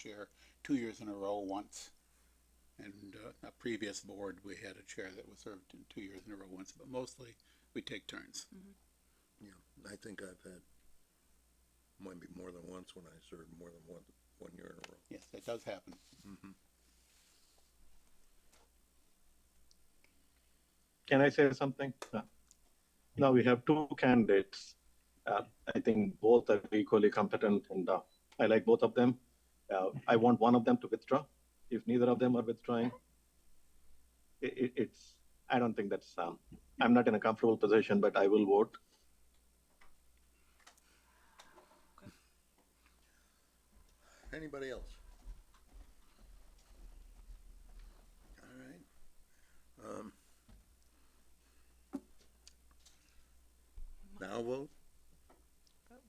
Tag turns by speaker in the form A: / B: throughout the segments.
A: chair two years in a row once. And uh, a previous board, we had a chair that was served in two years in a row once, but mostly we take turns.
B: Yeah, I think I've had, might be more than once when I served more than one, one year in a row.
A: Yes, that does happen.
C: Can I say something? No. Now we have two candidates. Uh, I think both are equally competent and uh, I like both of them. Uh, I want one of them to withdraw. If neither of them are withdrawing, it, it, it's, I don't think that's, um, I'm not in a comfortable position, but I will vote.
B: Anybody else? Alright. Um, Now vote?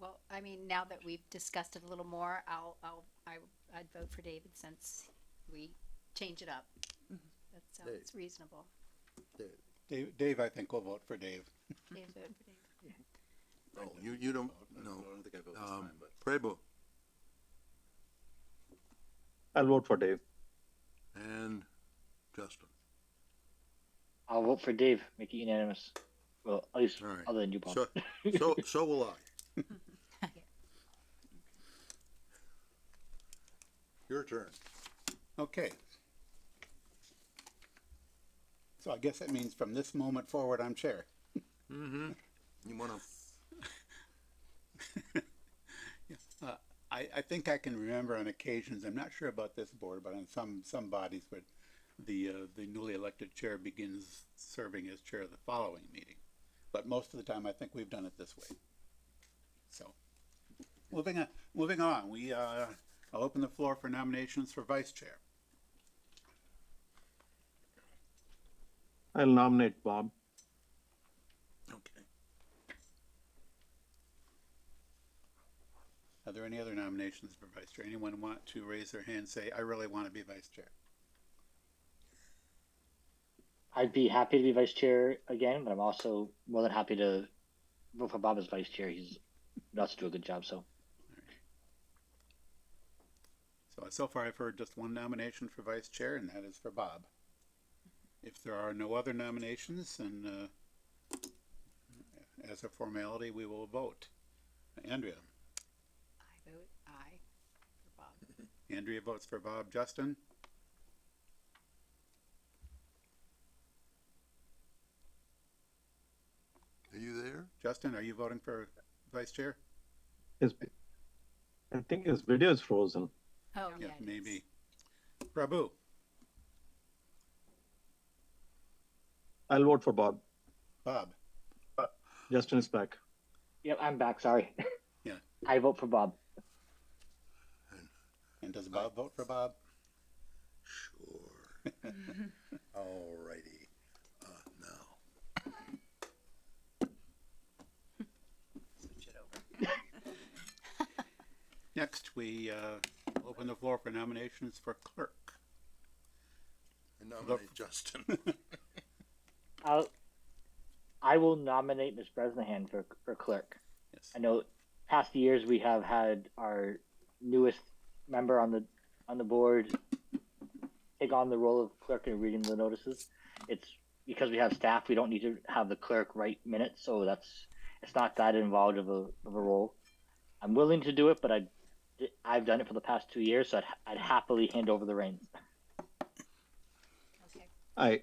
D: Well, I mean, now that we've discussed it a little more, I'll, I'll, I, I'd vote for David since we change it up. That sounds reasonable.
A: Dave, Dave, I think will vote for Dave.
D: Dave, Mm-hmm. vote for David.
B: No, Oh, you, you don't, no. Um, I don't think I vote this time, but. Prebo
C: I'll vote for Dave.
B: and Justin.
E: I'll vote for Dave. Make it unanimous. Well, at least
B: All right.
E: other than you, Paul.
B: So, so, so will I. Your turn.
A: Okay. So I guess that means from this moment forward, I'm chair.
B: Mm-hmm. You wanna,
A: Uh, I, I think I can remember on occasions, I'm not sure about this board, but on some, some bodies where the, uh, the newly elected chair begins serving as chair the following meeting. But most of the time, I think we've done it this way. So, moving on, moving on, we, uh, I'll open the floor for nominations for vice chair.
C: I'll nominate Bob.
B: okay.
A: Are there any other nominations for vice chair? Anyone want to raise their hand, say, I really want to be vice chair?
E: I'd be happy to be vice chair again, but I'm also more than happy to vote for Bob as vice chair. He's nuts to do a good job. So
A: So, so far I've heard just one nomination for vice chair, and that is for Bob. If there are no other nominations, then, uh, as a formality, we will vote. Andrea,
D: I vote aye for Bob.
A: Andrea votes for Bob, Justin,
B: Are you there?
A: Justin, are you voting for vice chair?
C: His, I think his video is frozen.
D: Oh, yeah. it is.
A: Maybe. Prabhu,
C: I'll vote for Bob.
A: Bob,
C: Justin is back.
E: yep, I'm back. Sorry.
A: Yeah.
E: I vote for Bob.
A: and does Bob vote for Bob?
B: Sure. Alrighty, uh, now,
A: Next, we, uh, open the floor for nominations for clerk.
B: I nominate Justin.
E: I'll, I will nominate Ms. Bresnahan for, for clerk.
A: Yes.
E: I know past years we have had our newest member on the on the board take on the role of clerk and reading the notices. It's because we have staff, we don't need to have the clerk write minutes, so that's it's not that involved of a of a role. I'm willing to do it, but I I've done it for the past two years, so I'd, I'd happily hand over the reins.
D: Okay.
C: I,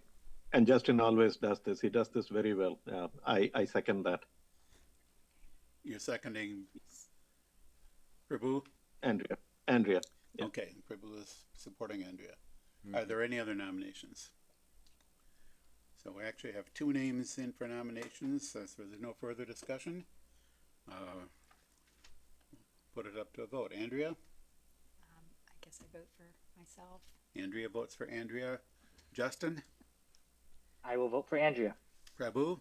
C: and Justin always does this. He does this very well. Uh, I, I second that.
A: You're seconding Prabhu?
C: Andrea, Andrea, Yeah.
A: Okay, Pribble is supporting Andrea. Are there any other nominations? So we actually have two names in for nominations, so so there's no further discussion. Uh, Put it up to a vote. Andrea?
D: Um, I guess I vote for myself.
A: Andrea votes for Andrea. Justin?
E: I will vote for Andrea.
A: Prabhu?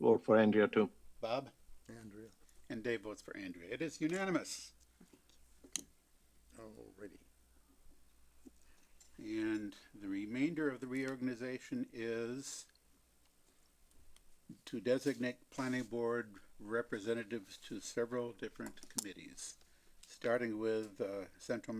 C: vote for Andrea too.
A: Bob?
B: Andrea,
A: And Dave votes for Andrea. It is unanimous.
B: alrighty.
A: And the remainder of the reorganization is to designate planning board representatives to several different committees. starting with uh, Central